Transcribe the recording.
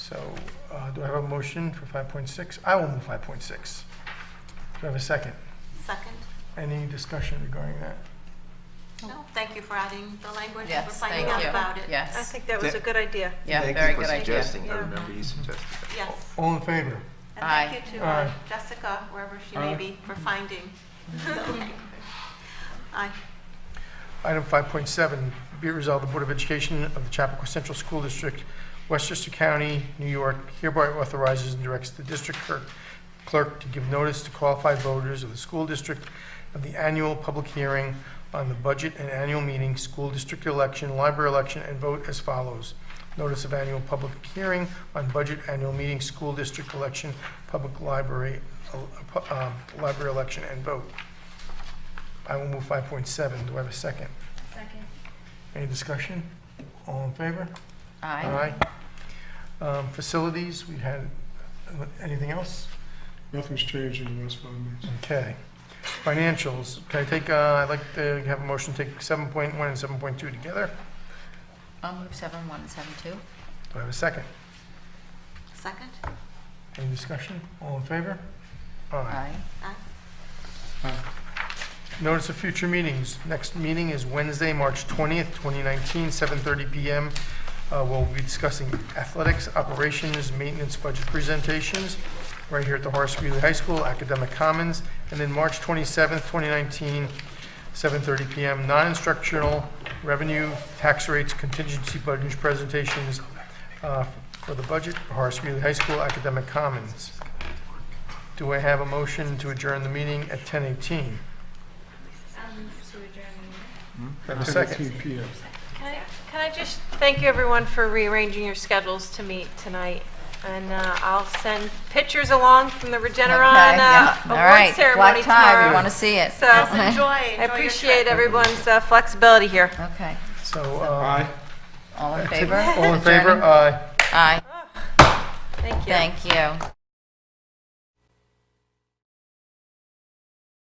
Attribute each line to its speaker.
Speaker 1: So uh, do I have a motion for 5.6? I will move 5.6. Do I have a second?
Speaker 2: Second?
Speaker 1: Any discussion regarding that?
Speaker 2: No, thank you for adding the language and for
Speaker 3: Yes, thank
Speaker 2: finding out
Speaker 3: you.
Speaker 2: about it.
Speaker 4: I
Speaker 3: Yes,
Speaker 4: think that was a good idea.
Speaker 3: yeah, very good
Speaker 5: Thank you for
Speaker 3: idea.
Speaker 5: suggesting, I
Speaker 4: Yeah.
Speaker 5: remember you suggested that.
Speaker 2: Yes.
Speaker 1: All in favor?
Speaker 2: And thank you to uh,
Speaker 1: Aye.
Speaker 2: Jessica, wherever she may
Speaker 1: Aye.
Speaker 2: be, for finding the language. Aye.
Speaker 1: Item 5.7, be it resolved, the Board of Education of the Chapakua Central School District, Westchester County, New York, hereby authorizes and directs the district clerk- clerk to give notice to qualified voters of the school district of the annual public hearing on the budget and annual meeting, school district election, library election, and vote as follows. Notice of annual public hearing on budget, annual meeting, school district election, public library, uh, pu- um, library election, and vote. I will move 5.7. Do I have a second?
Speaker 6: Second.
Speaker 1: Any discussion? All in favor?
Speaker 3: Aye.
Speaker 1: Um, Facilities, we had, anything else?
Speaker 7: Nothing's changed in the last five minutes.
Speaker 1: Okay. Financials, can I take, uh, I'd like to have a motion to take 7.1 and 7.2 together.
Speaker 3: I'll move seven one and seven two.
Speaker 1: Do I have a second?
Speaker 2: Second?
Speaker 1: Any discussion? All in favor?
Speaker 3: Aye.
Speaker 2: Aye.
Speaker 1: Notice of future meetings. Next meeting is Wednesday, March 20th, 2019, 7:30 PM. Uh, We'll be discussing athletics, operations, maintenance, budget presentations, right here at the Horace Greeley High School, Academic Commons. And then March 27th, 2019, 7:30 PM, non-instructional revenue, tax rates, contingency budget presentations uh, for the budget, Horace Greeley High School, Academic Commons. Do I have a motion to adjourn the meeting at 10:18?
Speaker 6: I'll move Um, to adjourn.
Speaker 1: Do I have a second?
Speaker 7: 10:18 PM.
Speaker 6: Can I, can I just thank you, everyone, for rearranging your schedules to meet tonight? And uh, I'll send pictures along from the Regeneron uh,
Speaker 3: yeah. All
Speaker 6: Award
Speaker 3: right,
Speaker 6: Ceremony
Speaker 3: Black tie, we
Speaker 6: tomorrow.
Speaker 3: want to see it.
Speaker 6: So
Speaker 2: Enjoy,
Speaker 6: I
Speaker 2: enjoy your trip.
Speaker 6: appreciate everyone's uh, flexibility here.
Speaker 3: Okay,
Speaker 1: So,
Speaker 7: Aye.
Speaker 1: um,
Speaker 3: all in favor?
Speaker 1: all in favor?
Speaker 3: Adjourning?
Speaker 1: Aye.
Speaker 3: Aye,
Speaker 6: Thank you.
Speaker 3: thank you.